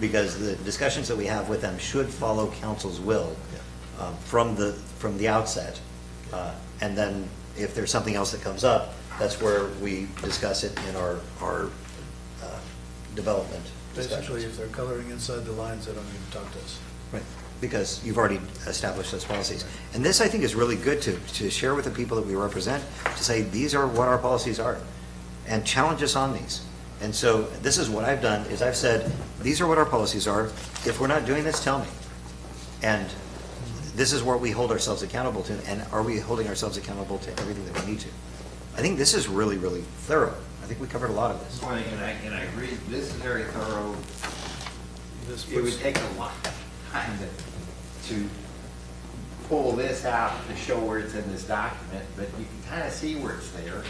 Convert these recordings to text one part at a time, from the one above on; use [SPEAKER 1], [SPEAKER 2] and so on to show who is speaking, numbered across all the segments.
[SPEAKER 1] because the discussions that we have with them should follow council's will uh, from the, from the outset. Uh, And then if there's something else that comes up, that's where we discuss it in our, our uh, development
[SPEAKER 2] Basically,
[SPEAKER 1] discussions.
[SPEAKER 2] if they're coloring inside the lines, they don't even talk to us.
[SPEAKER 1] Right, because you've already established those policies. And this, I think, is really good to, to share with the people that we represent, to say, these are what our policies are, and challenge us on these. And so this is what I've done, is I've said, these are what our policies are. If we're not doing this, tell me. And this is where we hold ourselves accountable to, and are we holding ourselves accountable to everything that we need to? I think this is really, really thorough. I think we covered a lot of this.
[SPEAKER 3] This one, and I, and I agree, this is very thorough.
[SPEAKER 2] This
[SPEAKER 3] It would
[SPEAKER 2] puts-
[SPEAKER 3] take a lot of time to, to pull this out to show where it's in this document, but you can kind of see where it's there.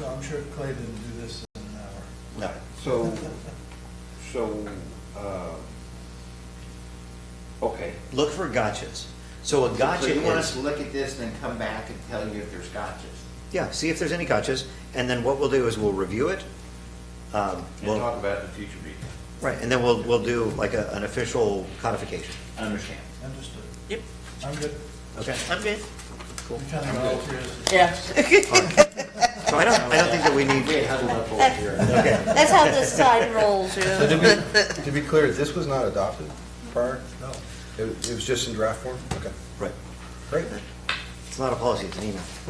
[SPEAKER 2] No, I'm sure Clay didn't do this in uh, an
[SPEAKER 1] No.
[SPEAKER 2] hour.
[SPEAKER 4] So, so, uh, okay,
[SPEAKER 1] Look for gotchas. So a gotcha
[SPEAKER 3] So you want us
[SPEAKER 1] is,
[SPEAKER 3] to look at this and then come back and tell you if there's gotchas?
[SPEAKER 1] yeah, see if there's any gotchas, and then what we'll do is we'll review it. Um,
[SPEAKER 3] And
[SPEAKER 1] We'll,
[SPEAKER 3] talk about it in future meeting.
[SPEAKER 1] right, and then we'll, we'll do like a- an official codification.
[SPEAKER 3] Understand.
[SPEAKER 2] Understood.
[SPEAKER 5] Yep,
[SPEAKER 2] I'm good.
[SPEAKER 1] Okay?
[SPEAKER 5] I'm good.
[SPEAKER 2] We kind of all curious.
[SPEAKER 5] Yeah.
[SPEAKER 1] So I don't, I don't think that we need,
[SPEAKER 3] We huddle up over here.
[SPEAKER 1] okay,
[SPEAKER 5] That's how this side rolls, you
[SPEAKER 6] So to
[SPEAKER 5] know.
[SPEAKER 6] be, to be clear, this was not adopted prior?
[SPEAKER 2] No.
[SPEAKER 6] It was it was just in draft form? Okay,
[SPEAKER 1] right.
[SPEAKER 6] great.
[SPEAKER 1] It's not a policy, it's an email.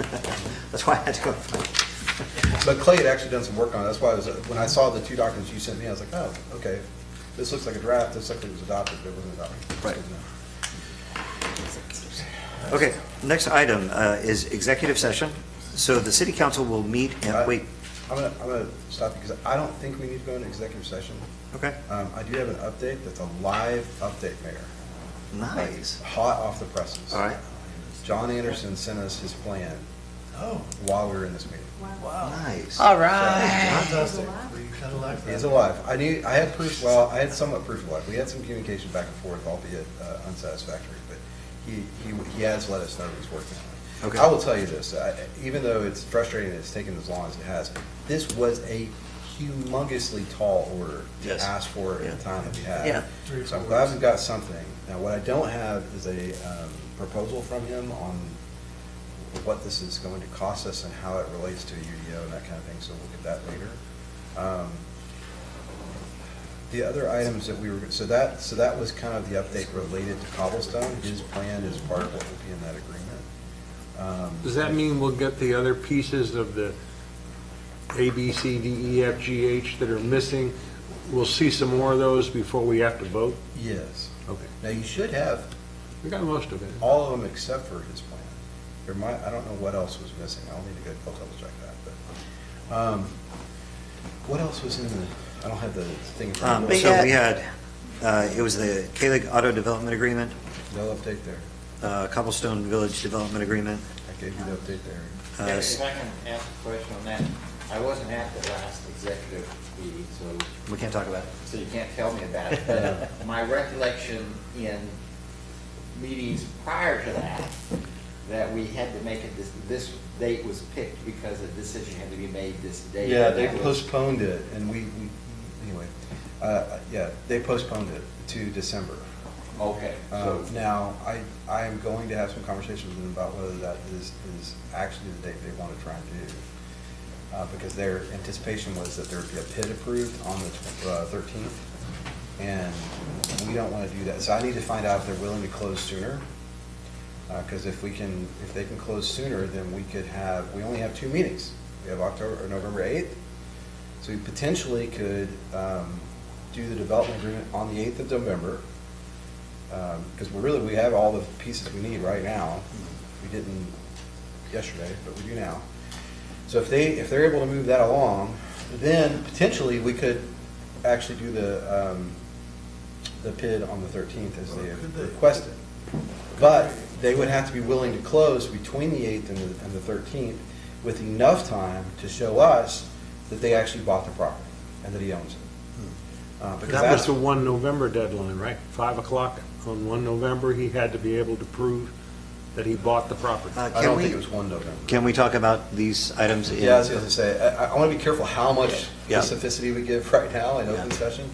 [SPEAKER 1] That's why I had to go.
[SPEAKER 6] But Clay had actually done some work on it, that's why I was, when I saw the two documents you sent me, I was like, oh, okay. This looks like a draft, this looks like it was adopted, but it wasn't adopted. uh,
[SPEAKER 1] Right. Okay, next item uh, is executive session. So the city council will meet, and
[SPEAKER 6] I-
[SPEAKER 1] wait,
[SPEAKER 6] I'm gonna, I'm gonna stop because I don't think we need to go into executive session.
[SPEAKER 1] okay,
[SPEAKER 6] Um, I do have an update that's a live update, Mayor.
[SPEAKER 1] nice.
[SPEAKER 6] Hot off the presses.
[SPEAKER 1] All right,
[SPEAKER 6] John Anderson sent us his plan
[SPEAKER 2] Oh,
[SPEAKER 6] while we were in this meeting.
[SPEAKER 2] wow.
[SPEAKER 1] nice.
[SPEAKER 5] All right.
[SPEAKER 2] Fantastic. We kind of like that.
[SPEAKER 6] He's alive. I knew, I had proof, well, I had somewhat proof of life. We had some communication back and forth, albeit uh, unsatisfactory, but he, he, he has let us know he's working on it.
[SPEAKER 1] Okay.
[SPEAKER 6] I will tell you this, I- even though it's frustrating that it's taken as long as it has, this was a humongously tall order to
[SPEAKER 1] Yes.
[SPEAKER 6] ask for at the time that we had.
[SPEAKER 5] Yeah.
[SPEAKER 2] Three or
[SPEAKER 6] So I'm
[SPEAKER 2] four
[SPEAKER 6] glad
[SPEAKER 2] weeks.
[SPEAKER 6] we've got something. Now, what I don't have is a um, proposal from him on what this is going to cost us and how it relates to a UDO and that kind of thing, so we'll get that later. Um, The other items that we were, so that, so that was kind of the update related to cobblestone. His plan is part of what will be in that agreement.
[SPEAKER 7] Does that mean we'll get the other pieces of the A, B, C, D, E, F, G, H that are missing? We'll see some more of those before we have to vote?
[SPEAKER 6] Yes.
[SPEAKER 7] Okay.
[SPEAKER 6] Now, you should have
[SPEAKER 7] We got most of it.
[SPEAKER 6] all of them except for his plan. There might, I don't know what else was missing, I'll need to go I'll double check that, but, um, what else was in the, I don't have the thing. in front of
[SPEAKER 1] Um,
[SPEAKER 6] me.
[SPEAKER 5] But
[SPEAKER 1] So
[SPEAKER 5] yeah.
[SPEAKER 1] we had, uh, it was the Kalig Auto Development Agreement,
[SPEAKER 6] No update there,
[SPEAKER 1] uh, Cobblestone Village Development Agreement.
[SPEAKER 6] I gave you the update there.
[SPEAKER 1] uh,
[SPEAKER 3] If I can ask a question on that, I wasn't at the last executive meeting, so
[SPEAKER 1] We can't talk about it.
[SPEAKER 3] so you can't tell me about it, but uh, my recollection in meetings prior to that, that we had to make it, this, this date was picked because a decision had to be made this date.
[SPEAKER 6] Yeah, they postponed it, and we, we, anyway, uh, yeah, they postponed it to December.
[SPEAKER 3] Okay, so,
[SPEAKER 6] Um, Now, I, I am going to have some conversations with them about whether that is, is actually the date they want to try and do. Uh, Because their anticipation was that there would be a PID approved on the uh, thirteenth, and we don't want to do that. So I need to find out if they're willing to close sooner. Because if we can, if they can close sooner, then we could have, we only have two meetings. We have October, or November eighth, so we potentially could um, do the development agreement on the 8th of November, because we're really, Um, we have all the pieces we need right now. We didn't yesterday, but we do now. So if they, if they're able to move that along, then potentially we could actually do the, um, the PID on the 13th as they
[SPEAKER 2] Could
[SPEAKER 6] have
[SPEAKER 2] they?
[SPEAKER 6] requested. But they would have to be willing to close between the 8th and the, and the 13th with enough time to show us that they actually bought the property and that he owns it.
[SPEAKER 2] Hmm.
[SPEAKER 6] Uh, Because
[SPEAKER 7] That
[SPEAKER 6] that's,
[SPEAKER 7] was the one November deadline, right? Five o'clock on one November, he had to be able to prove that he bought the property.
[SPEAKER 1] Uh,
[SPEAKER 6] I
[SPEAKER 1] Can
[SPEAKER 6] don't think it
[SPEAKER 1] we,
[SPEAKER 6] was one November.
[SPEAKER 1] can we talk about these items in?
[SPEAKER 6] Yeah, I was gonna say, I, I wanna be careful how much
[SPEAKER 1] Yeah.
[SPEAKER 6] specificity we give right now in
[SPEAKER 1] Yeah.
[SPEAKER 6] open session.